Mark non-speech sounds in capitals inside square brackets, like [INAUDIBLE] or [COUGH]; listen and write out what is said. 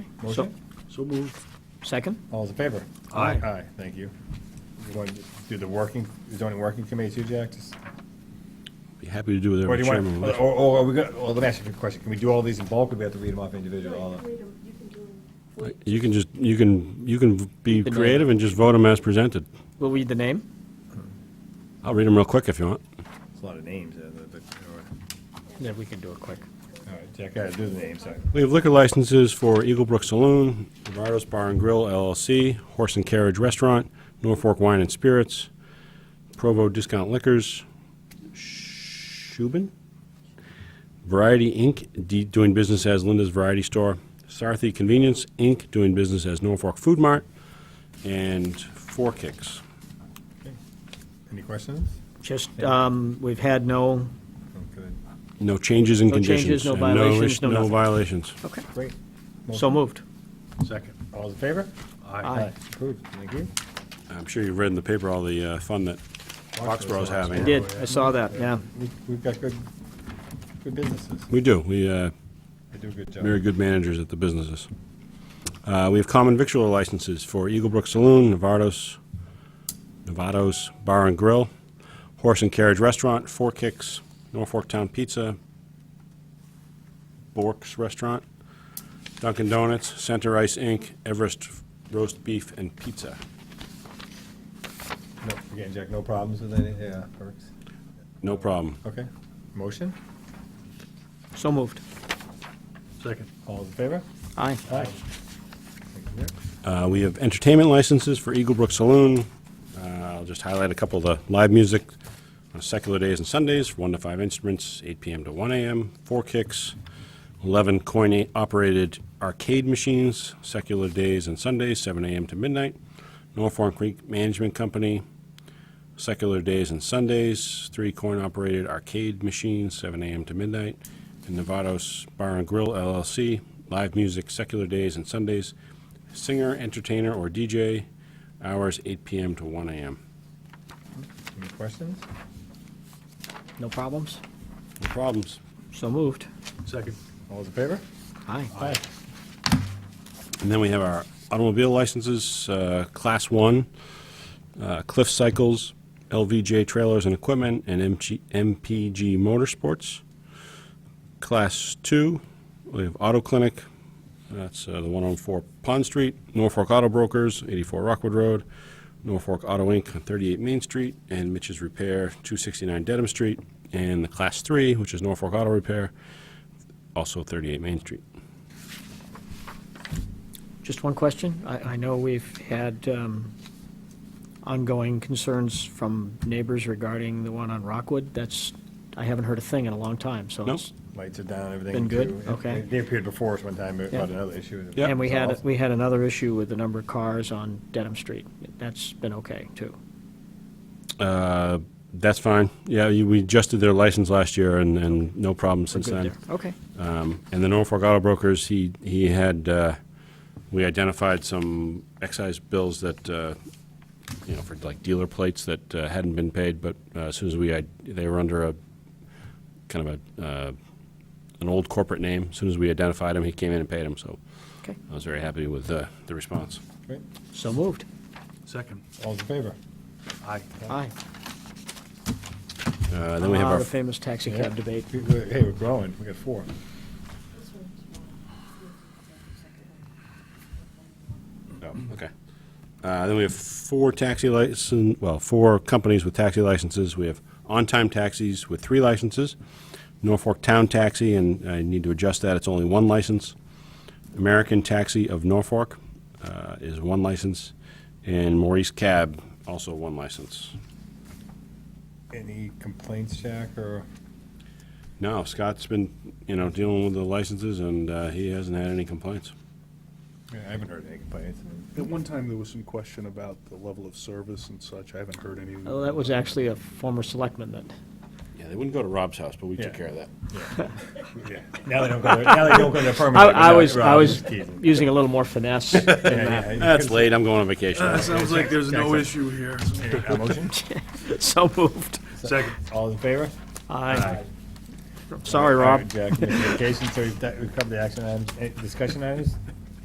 Motion? So moved. Second? All those in favor? Aye. Aye, thank you. You want to do the working, zoning working committee too, Jack? Just- Be happy to do whatever Or do you chairman want, uh, would or, like. or are we gonna, well, let me ask you a question. Can we do all these in bulk or do we have to read them off individually? all of- Uh, You can just, you can, you can be The name. creative and just vote them as presented. We'll read the name? I'll read them real quick if you want. It's a lot of names. uh, the- the- Yeah, we can do it quick. All right, Jack, gotta do the names. sorry. We have liquor licenses for Eagle Brook Saloon, Navardo's Bar and Grill LLC, Horse and Carriage Restaurant, Norfolk Wine and Spirits, Provo Discount Liquors, Shubin, Variety Inc., D- doing business as Linda's Variety Store, Sarthy Convenience Inc., doing business as Norfolk Food Mart, and Four Kicks. Any questions? Just, um, we've had no, Oh, Good. No changes in No changes, conditions. no and violations, is- no No nothing. violations. okay, Great. so moved. Second. All those in favor? Aye. Approved. Thank you. I'm sure you've read in the paper all the uh, fun that Foxborough's having. I did, I saw that, Oh, yeah. We- We've got good, good businesses. We do. We uh, They do a good job. very good managers at the businesses. Uh, we have common victualer licenses for Eagle Brook Saloon, Novatos, Novatos Bar and Grill, Horse and Carriage Restaurant, Four Kicks, Norfolk Town Pizza, Bork's Restaurant, Dunkin' Donuts, Center Ice Inc., Everest Roast Beef and Pizza. No, Again, Jack, no problems with any, yeah, perks. No problem. Okay. Motion? So moved. Second. All those in favor? Aye. Aye. Thank you, Jack. Uh, We have entertainment licenses for Eagle Brook Saloon. Uh, I'll just highlight a couple of the live music on secular days and Sundays, from 1 to 5 instruments, 8 PM to 1 AM, 4 kicks, 11 coin-operated arcade machines, secular days and Sundays, 7 AM to midnight, Norfolk Creek Management Company, secular days and Sundays, 3 coin-operated arcade machines, 7 AM to midnight, and Nevados Bar and Grill LLC, live music, secular days and Sundays, singer, entertainer, or DJ, hours 8 PM to 1 AM. Any questions? No problems? No problems. So moved. Second. All those in favor? Aye. Aye. And then we have our automobile licenses, uh, Class 1, uh, Cliff Cycles, LVJ Trailers and Equipment, and MG MPG Motorsports. Class 2, we have Auto Clinic, that's uh, the one on 4 Pond Street, Norfolk Auto Brokers, 84 Rockwood Road, Norfolk Auto Inc., on 38 Main Street, and Mitch's Repair, 269 Dedham Street, and the Class 3, which is Norfolk Auto Repair, also 38 Main Street. Just one question. I, I know we've had, um, ongoing concerns from neighbors regarding the one on Rockwood. That's, I haven't heard a thing in a long time, so Nope. it's. Lights are down, Been everything. good? too. Okay. They appeared before us one time about Yeah. another issue. Yeah. And we had, Solved. we had another issue with the number of cars on Dedham Street. That's been okay, too. Uh, That's fine. Yeah, you- we adjusted their license last year and, and no problem We're since good then. there. Okay. Um, And the Norfolk Auto Brokers, he, he had, uh, we identified some excise bills that, uh, you know, for like dealer plates that uh, hadn't been paid, but uh, as soon as we, id- they were under a, kind of a, uh, an old corporate name. As soon as we identified him, he came in and paid him, so Okay. I was very happy with uh, the response. Great. So moved. Second. All those in favor? Aye. Aye. Uh, Then we have Ah, our The famous taxi cab debate. We- we- Hey, we're growing. We got four. Oh, okay. Uh, Then we have four taxi license, well, four companies with taxi licenses. We have on-time taxis with three licenses, Norfolk Town Taxi, and I need to adjust that, it's only one license. American Taxi of Norfolk uh, is one license, and Maurice Cab, also one license. Any complaints, Jack, or? No, Scott's been, you know, dealing with the licenses, and uh, he hasn't had any complaints. I haven't heard any complaints. At one time, there was some question about the level of service and such. I haven't heard any. Oh, that was actually a former selectman that, Yeah, they wouldn't go to Rob's house, but we Yeah. took care of that. Yeah. Now they don't go, to- now they don't go to I, permanent. I was, I Rob, was just teasing. using a little more [LAUGHS] finesse in Yeah, that. yeah, That's late, I'm going on [LAUGHS] vacation. Uh, sounds like there's no issue here. you [LAUGHS] couldn't- a Motion? So moved. [LAUGHS] Second. All in favor? Aye. Sorry, Rob. Jack, communications, so we've, we've covered the action items, Eh, discussion items?